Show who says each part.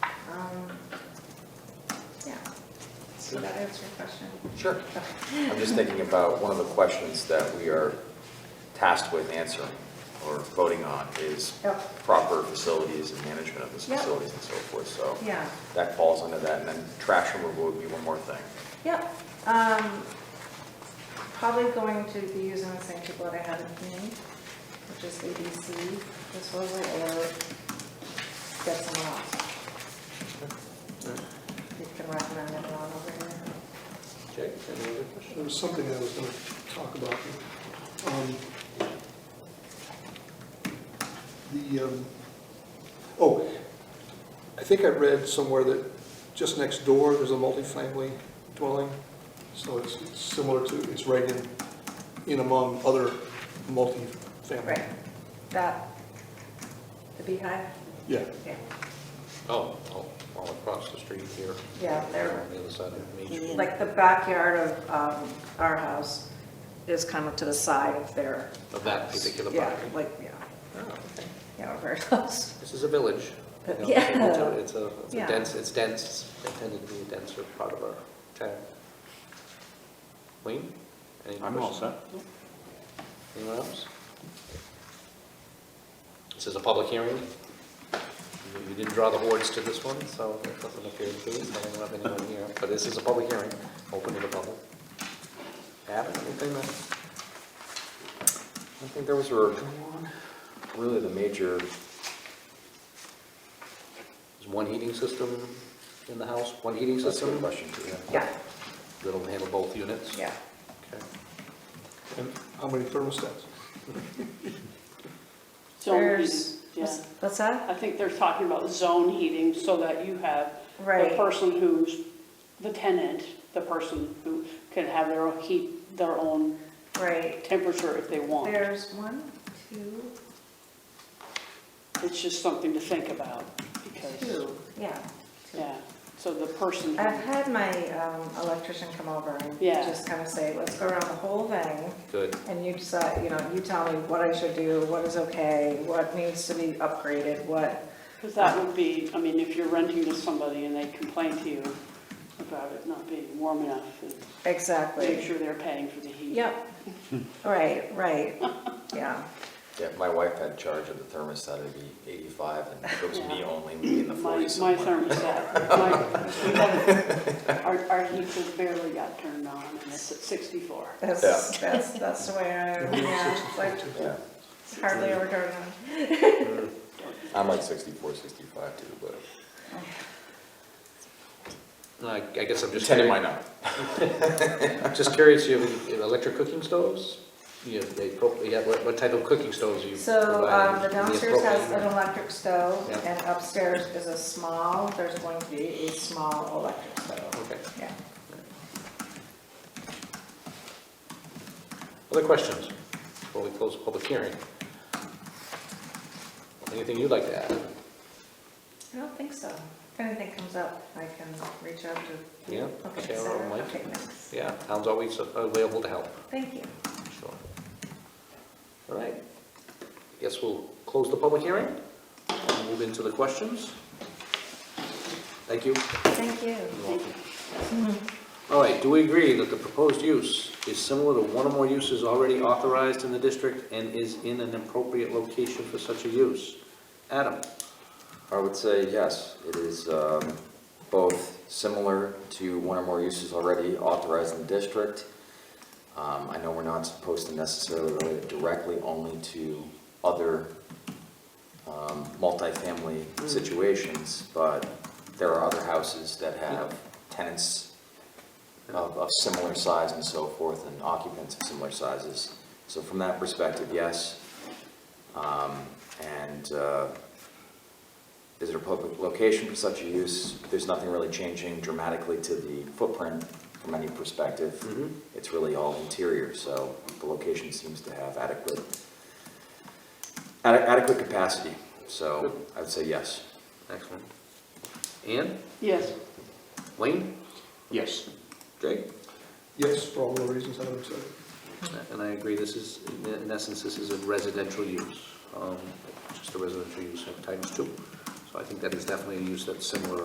Speaker 1: Did Um, that answer your question?
Speaker 2: Sure. I'm just thinking about one of the questions that we are tasked with answering or voting on is
Speaker 1: Yep.
Speaker 2: proper facilities and management of those
Speaker 1: Yep.
Speaker 2: facilities and so forth, so.
Speaker 1: Yeah.
Speaker 2: That falls under that, and then trash removal would be one more thing.
Speaker 1: Yep. Um, Probably going to be using the same people that I had with me, which is ABC, this was it, or get someone else. You can recommend anyone over here.
Speaker 3: Jake, any other questions?
Speaker 4: There was something I was going to talk about. Um, The, um, oh, I think I read somewhere that just next door, there's a multifamily dwelling, so it's it's similar to, it's right in, in among other multifamily.
Speaker 1: Right, that, the beehive?
Speaker 4: Yeah,
Speaker 1: Yeah.
Speaker 3: Oh, oh, all across the street here.
Speaker 1: Yeah, they're-
Speaker 3: On the other side of Main Street.
Speaker 1: Like the backyard of um, our house is kind of to the side of their.
Speaker 3: Of that
Speaker 1: house.
Speaker 3: particular
Speaker 1: Yeah,
Speaker 3: property.
Speaker 1: like, yeah,
Speaker 3: Oh, okay.
Speaker 1: yeah, very close.
Speaker 3: This is a village. you know,
Speaker 1: Uh, Yeah.
Speaker 3: it's a- It's a, it's
Speaker 1: Yeah.
Speaker 3: a dense, it's dense, It's intended to be a denser part of our town. Wayne? any questions? Anyone else? This is a public hearing. You- You didn't draw the hordes to this one, so it doesn't appear to be, so I don't have anyone here. But this is a public hearing, open to the public. Adam, anything
Speaker 2: I
Speaker 3: that,
Speaker 2: think those were really the major,
Speaker 3: is one heating system in the house, one heating
Speaker 2: that's a
Speaker 3: system?
Speaker 2: good question, Julia.
Speaker 1: Yeah,
Speaker 3: That'll handle both units?
Speaker 1: yeah.
Speaker 3: Okay.
Speaker 4: and how many thermostats?
Speaker 5: Zone heating,
Speaker 1: There's-
Speaker 5: yeah.
Speaker 1: What's that?
Speaker 5: I think they're talking about zone heating so that you have the
Speaker 1: Right.
Speaker 5: person who's the tenant, the person who can have their own heat, their own
Speaker 1: Right.
Speaker 5: temperature if they want.
Speaker 1: There's one, two,
Speaker 5: It's just something to think about because,
Speaker 1: two, yeah.
Speaker 5: yeah, so the person, who-
Speaker 1: I've had my um, electrician come over and
Speaker 5: Yeah.
Speaker 1: just kind of say, let's go around the whole thing.
Speaker 3: Good.
Speaker 1: And you decide, you know, you tell me what I should do, what is okay, what needs to be upgraded, what,
Speaker 5: because that would be, I mean, if you're renting to somebody and they complain to you about it not being warm enough, and make
Speaker 1: exactly.
Speaker 5: sure they're paying for the heat.
Speaker 1: Yep, right, right, yeah.
Speaker 2: Yeah, my wife had charge of the thermostat, it'd be 85, and if it was me
Speaker 5: Yeah.
Speaker 2: only, we'd be in the
Speaker 5: My,
Speaker 2: 40s
Speaker 5: my
Speaker 2: somewhere.
Speaker 5: thermostat, my, we got- our, our heater barely got turned on, and it's at sixty-four.
Speaker 1: That's, that's, that's the way I, yeah, it's like
Speaker 2: Yeah,
Speaker 1: hardly ever turn on.
Speaker 2: I'm like 64, 65 too, but.
Speaker 3: I I guess I'm just.
Speaker 2: Ten
Speaker 3: curious-
Speaker 2: might not.
Speaker 3: I'm Just curious, you have any electric cooking stoves? You have, they, pro- you have- what what type of cooking stoves you
Speaker 1: So, um,
Speaker 3: provide?
Speaker 1: the
Speaker 3: Do you have
Speaker 1: downstairs has
Speaker 3: propane or-
Speaker 1: an electric stove,
Speaker 3: Yeah.
Speaker 1: and upstairs is a small, there's going to be a small electric stove,
Speaker 3: Okay.
Speaker 1: yeah.
Speaker 3: Other questions before we close the public hearing? Anything you'd like to add?
Speaker 1: I don't think so. If anything comes up, I can reach out to.
Speaker 3: Yeah,
Speaker 1: Okay,
Speaker 3: Sarah or
Speaker 1: Sarah,
Speaker 3: Mike?
Speaker 1: okay, thanks.
Speaker 3: Yeah, town's always available to help,
Speaker 1: Thank you.
Speaker 3: sure. All right, guess we'll close the public hearing and move into the questions. Thank you.
Speaker 1: Thank you.
Speaker 3: All right, do we agree that the proposed use is similar to one or more uses already authorized in the district and is in an appropriate location for such a use? Adam?
Speaker 2: I would say yes, it is um, both similar to one or more uses already authorized in the district. Um, I know we're not supposed to necessarily relate it directly only to other um, multifamily situations, but there are other houses that have tenants of, of similar size and so forth, and occupants of similar sizes. So from that perspective, yes. Um, And uh, is it a public location for such a use? There's nothing really changing dramatically to the footprint from any perspective.
Speaker 3: Mm-hmm.
Speaker 2: It's really all interior, so the location seems to have adequate, ade- adequate capacity. So I would say yes.
Speaker 3: Excellent. Ann?
Speaker 5: Yes,
Speaker 3: Wayne?
Speaker 6: Yes.
Speaker 3: Jake?
Speaker 4: Yes, for all the reasons I would say.
Speaker 3: And I agree, this is, in essence, this is a residential use, um, just a residential use of times two. So I think that is definitely a use that's similar